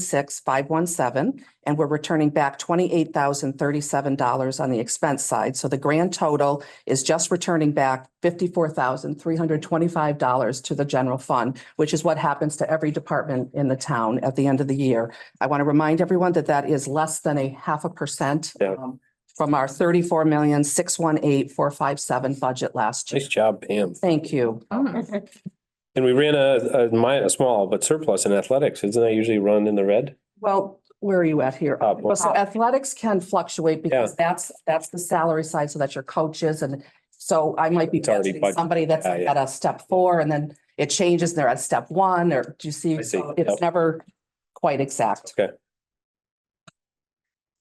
six five one seven, and we're returning back twenty-eight thousand thirty-seven dollars on the expense side. So the grand total is just returning back fifty-four thousand three hundred twenty-five dollars to the general fund, which is what happens to every department in the town at the end of the year. I want to remind everyone that that is less than a half a percent Yeah. um, from our thirty-four million six one eight four five seven budget last year. Nice job, Pam. Thank you. And we ran a, a mi- a small but surplus in athletics. Isn't that usually run in the red? Well, where are you at here? Up. Well, so athletics can fluctuate because that's, that's the salary side, so that's your coaches and so I might be It's already budgeting budgeted. somebody that's Yeah, yeah. at a step four and then it changes and they're at step one or do you see? I see. So Yep. It's never quite exact. Okay.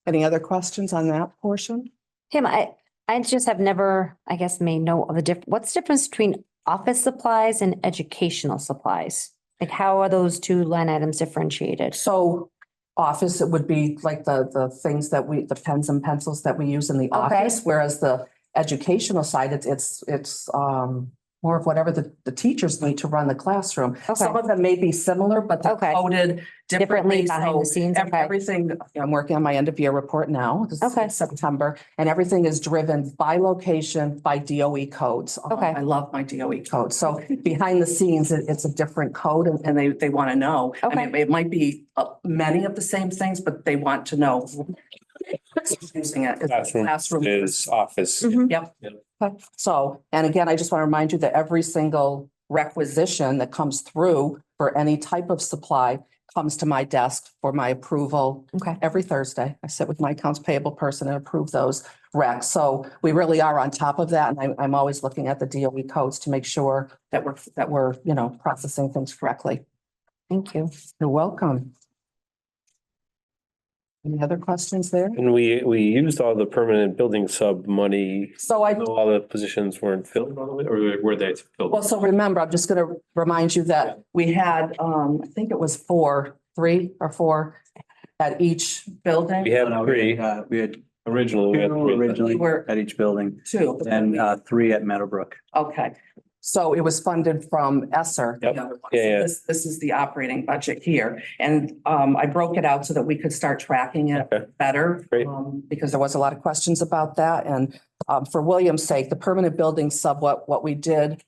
Any other questions on that portion? Tim, I, I just have never, I guess, made know of the diff, what's the difference between office supplies and educational supplies? Like how are those two line items differentiated? So office, it would be like the, the things that we, the pens and pencils that we use in the Okay. office, whereas the educational side, it's, it's, it's, um, more of whatever the, the teachers need to run the classroom. Okay, Some of them may be similar, but they're Okay. coded differently. differently behind So the scenes, ev- okay, everything, I'm working on my end of year report now. This is Okay. in September, and everything is driven by location, by DOE codes. Um, Okay. I love my DOE code. So behind the scenes, it- it's a different code and, and they, they want to know. I mean, It might be uh, many of the same things, but they want to know. Using it. as a Classroom Mm-hmm. Is office. Mhm. Yep. Yep. Okay. So, and again, I just want to remind you that every single requisition that comes through for any type of supply comes to my desk for my approval okay, every Thursday. I sit with my accounts payable person and approve those recs. So we really are on top of that. And I'm, I'm always looking at the DOE codes to make sure that we're, that we're, you know, processing things correctly. thank you. You're welcome. Any other questions there? And we, we used all the permanent building sub money. So I. Though All the positions weren't filled all the way, or were they filled? Well, so remember, I'm just gonna remind you that we had, um, I think it was four, three or four at each We building, have No, no, we three had, uh, We had originally. we had two three. You originally were- at each building two. and uh, three at Meadowbrook. Okay, so it was funded from Esser. the Yep. other one. Yeah, So yeah. This, this is the operating budget here. And, um, I broke it out so that we could start tracking it Okay. better. Great. um, Because there was a lot of questions about that. And, um, for William's sake, the permanent building sub, what, what we did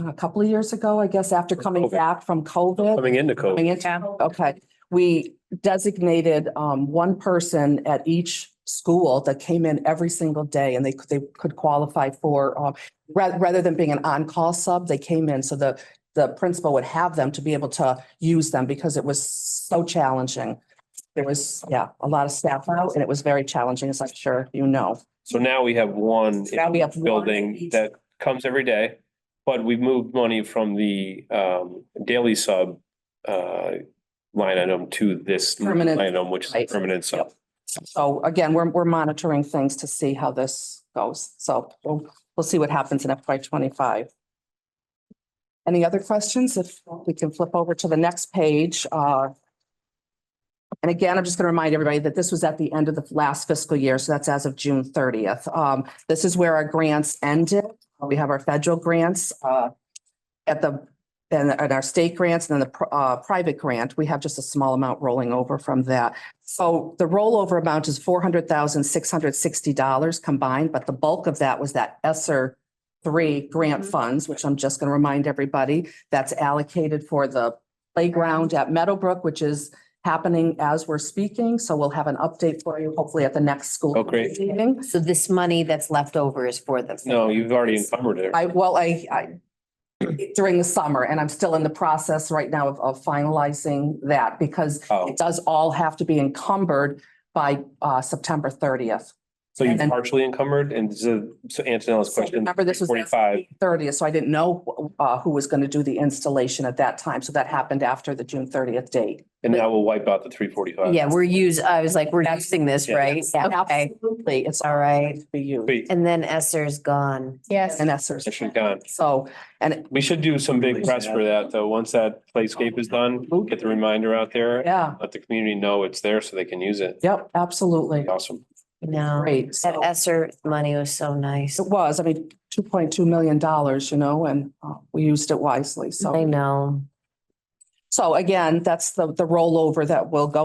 uh, a couple of years ago, I guess, after coming COVID. back from COVID. Coming into COVID. Coming into, okay, we designated um one person at each school that came in every single day and they could, they could qualify for um rather, rather than being an on-call sub, they came in so the the principal would have them to be able to use them because it was so challenging. There was, yeah, a lot of staff out and it was very challenging, as I'm sure you know. So now we have one Now we have one building each. that comes every day. But we moved money from the um daily sub uh line item to this line Permanent. item, which is a Right. permanent sub. So again, we're we're monitoring things to see how this goes. So we'll we'll see what happens in FY twenty-five. Any other questions? If we can flip over to the next page, uh. And again, I'm just going to remind everybody that this was at the end of the last fiscal year, so that's as of June thirtieth. Um, this is where our grants ended. Uh, We have our federal grants, uh. At the, and and our state grants and then the pr- uh private grant. We have just a small amount rolling over from that. So the rollover amount is four hundred thousand, six hundred sixty dollars combined, but the bulk of that was that ESSER three grant Mhm. funds, which I'm just going to remind everybody, that's allocated for the playground at Meadowbrook, which is happening as we're speaking. So we'll have an update for you hopefully at the next school. Oh, great. meeting. So this money that's left over is for them? No, you've already encumbered it. I, well, I, I, during the summer, and I'm still in the process right now of- of finalizing that because Oh, it does all have to be encumbered by uh September thirtieth. so you've and- partially encumbered and so so Antonella's So question. remember, this was- Forty-five, Thirtieth, so I didn't know uh who was going to do the installation at that time. So that happened after the June thirtieth date. and that will wipe out the three forty-five. Yeah, we're use, I was like, we're using this, uh, Yeah. right? Okay, Absolutely, it's all right. to be used. Wait, And then Esser's gone. Yes. And that's, there's- mission gone. so, and We should do some big press for that, though. Once that playscape is done, get the reminder out there. yeah, Let the community know it's there so they can use it. yep, absolutely. Awesome. No, Great. that So Esser money was so nice. it was, I mean, two point two million dollars, you know, and uh, we used it wisely. I So know. So again, that's the, the rollover that will go